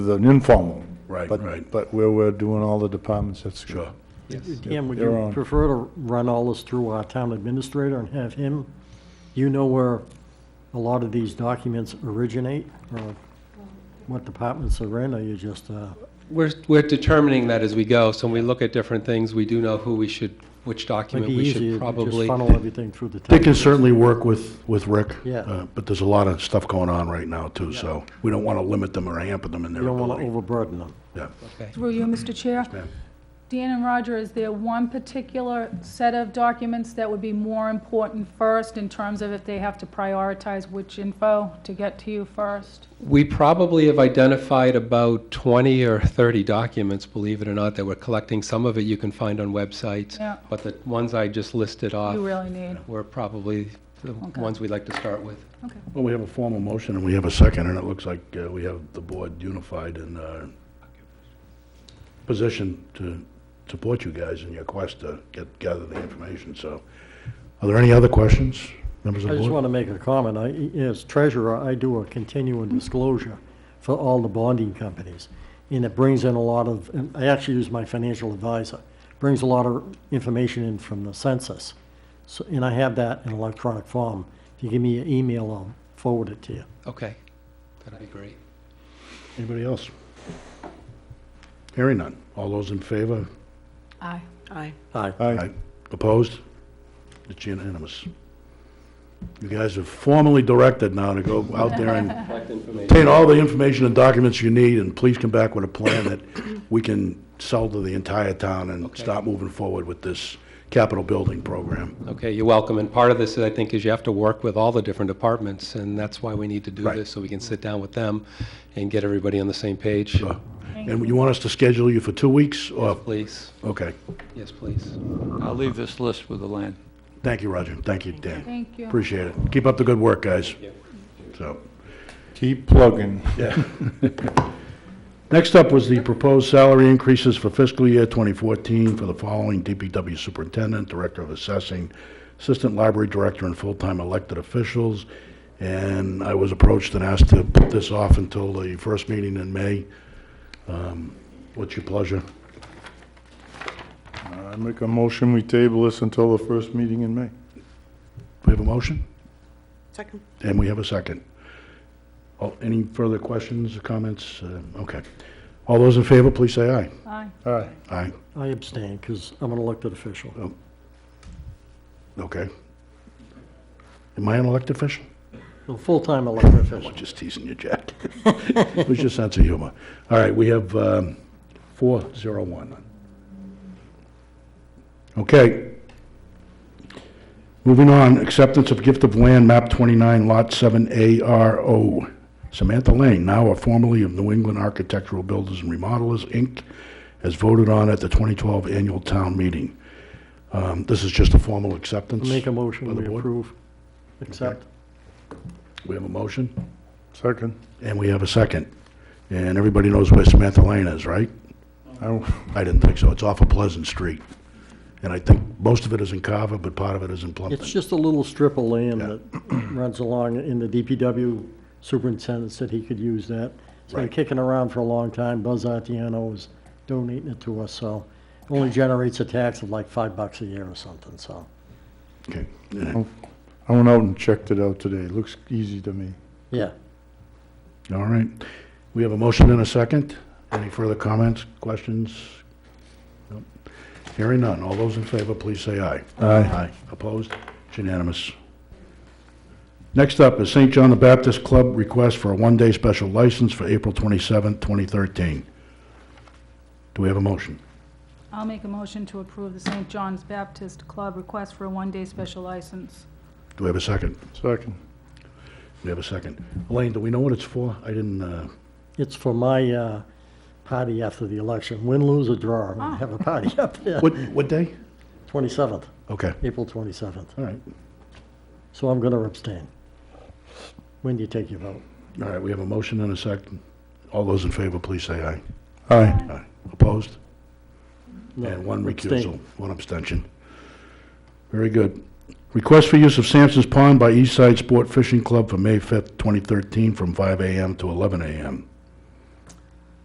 an informal. Right, but- right. But where we're doing all the departments, that's. Sure. Cam, would They're you on. prefer to run all this through our town administrator and have him? You know where a lot of these documents originate, or what departments are in, or you just, uh, We're, we're determining that as we go, so when we look at different things, we do know who we should, which might document be we easier should to just probably. funnel everything through the town. Dick can certainly work with, with Rick. Yeah. uh, But there's a lot of stuff going on right now, too, so we don't want to limit them or hamper them in You their don't want to ability. overburden them. Yeah. Okay. Through you, Mr. Chair. ma'am. Dan and Roger, is there one particular set of documents that would be more important first in terms of if they have to prioritize which info to get to you first? We probably have identified about 20 or 30 documents, believe it or not, that we're collecting. Some of it you can find on websites. Yeah. But the ones I just listed Uh, off You really need, were probably the Okay. ones we'd like to start with. okay. Well, we have a formal motion and we have a second, and it looks like uh, we have the board unified in uh, position to support you guys in your quest to get, gather the information, so. Are there any other questions, members of I the just board? want to make a comment. I, as treasurer, I do a continuing disclosure for all the bonding companies. And it brings in a lot of, and I actually use my financial advisor, brings a lot of information in from the census. So, and I have that in electronic form. If you give me your email, I'll forward it to you. Okay, that'd be great. Anybody else? Hearing none. All those in favor? Aye. Aye. Aye. Aye. Opposed? It's unanimous. You guys are formally directed now to go out there and Collect information. obtain all the information and documents you need, and please come back with a plan that we can sell to the entire town and Okay. start moving forward with this capital building program. Okay, you're welcome. And part of this, I think, is you have to work with all the different departments, and that's why we need to do Right. this, so we can sit down with them and get everybody on the same page. Sure. Uh, And you want us to schedule you for two weeks? or- Please, Okay. yes, please. I'll leave this list with the land. Thank you, Roger. Thank you, Dan. Thank you. Appreciate it. Keep up the good work, guys. So. Keep plugging. Next up was the proposed salary increases for fiscal year 2014 for the following DPW Superintendent, Director of Assessing, Assistant Library Director, and full-time elected officials. And I was approached and asked to put this off until the first meeting in May. Um, What's your pleasure? I make a motion, we table this until the first meeting in May. We have a motion, Second. and we have a second. Oh, Any further questions or comments? Uh, Okay. All those in favor, please say aye. Aye. Aye. Aye. I abstain because I'm an elected official. Okay. Am I an elected official? A full-time elected I'm official. just teasing you, Jack. It was your sense of humor. All right, we have um, 401. Okay. Moving on, acceptance of gift of land, map 29, lot 7ARO. Samantha Lane, now a formerly of New England Architectural Builders and Remodelers, Inc., as voted on at the 2012 annual town meeting. Um, This is just a formal acceptance. Make a By motion, the we board? approve, accept. We have a motion? Second. And we have a second. And everybody knows where Samantha Lane is, right? I- I didn't think so. It's off of Pleasant Street. And I think most of it is in Carver, but part of it is in It's Plumpton. just a little strip of land that runs along, and the DPW superintendent said he could use that. It's been Right. kicking around for a long time, Buzz Artiano is donating it to us, so it only generates a tax of like five bucks a year or something, so. Okay. Yeah. I went out and checked it out today. Looks easy to me. Yeah, All right. We have a motion and a second. Any further comments, questions? Nope. Hearing none. All those in favor, please say aye. Aye. Opposed? It's unanimous. Next up is St. John the Baptist Club request for a one-day special license for April 27, 2013. Do we have a motion? I'll make a motion to approve the St. John's Baptist Club request for a one-day special license. Do we have a second? Second. We have a second. Elaine, do we know what it's for? I didn't, uh, it's for my, uh, party after the election, win, lose, or draw, I'm gonna have a party up there, what, what day? twenty-seventh, Okay, April twenty-seventh, all right. so I'm gonna abstain. When do you take your vote? All right, we have a motion and a second. All those in favor, please say aye. Aye. Aye. Opposed? No, And one abstain. recusal, one abstention. Very good. Request for use of Sampson's Pond by East Side Sport Fishing Club for May 5th, 2013, from 5 a.m. to 11 a.m.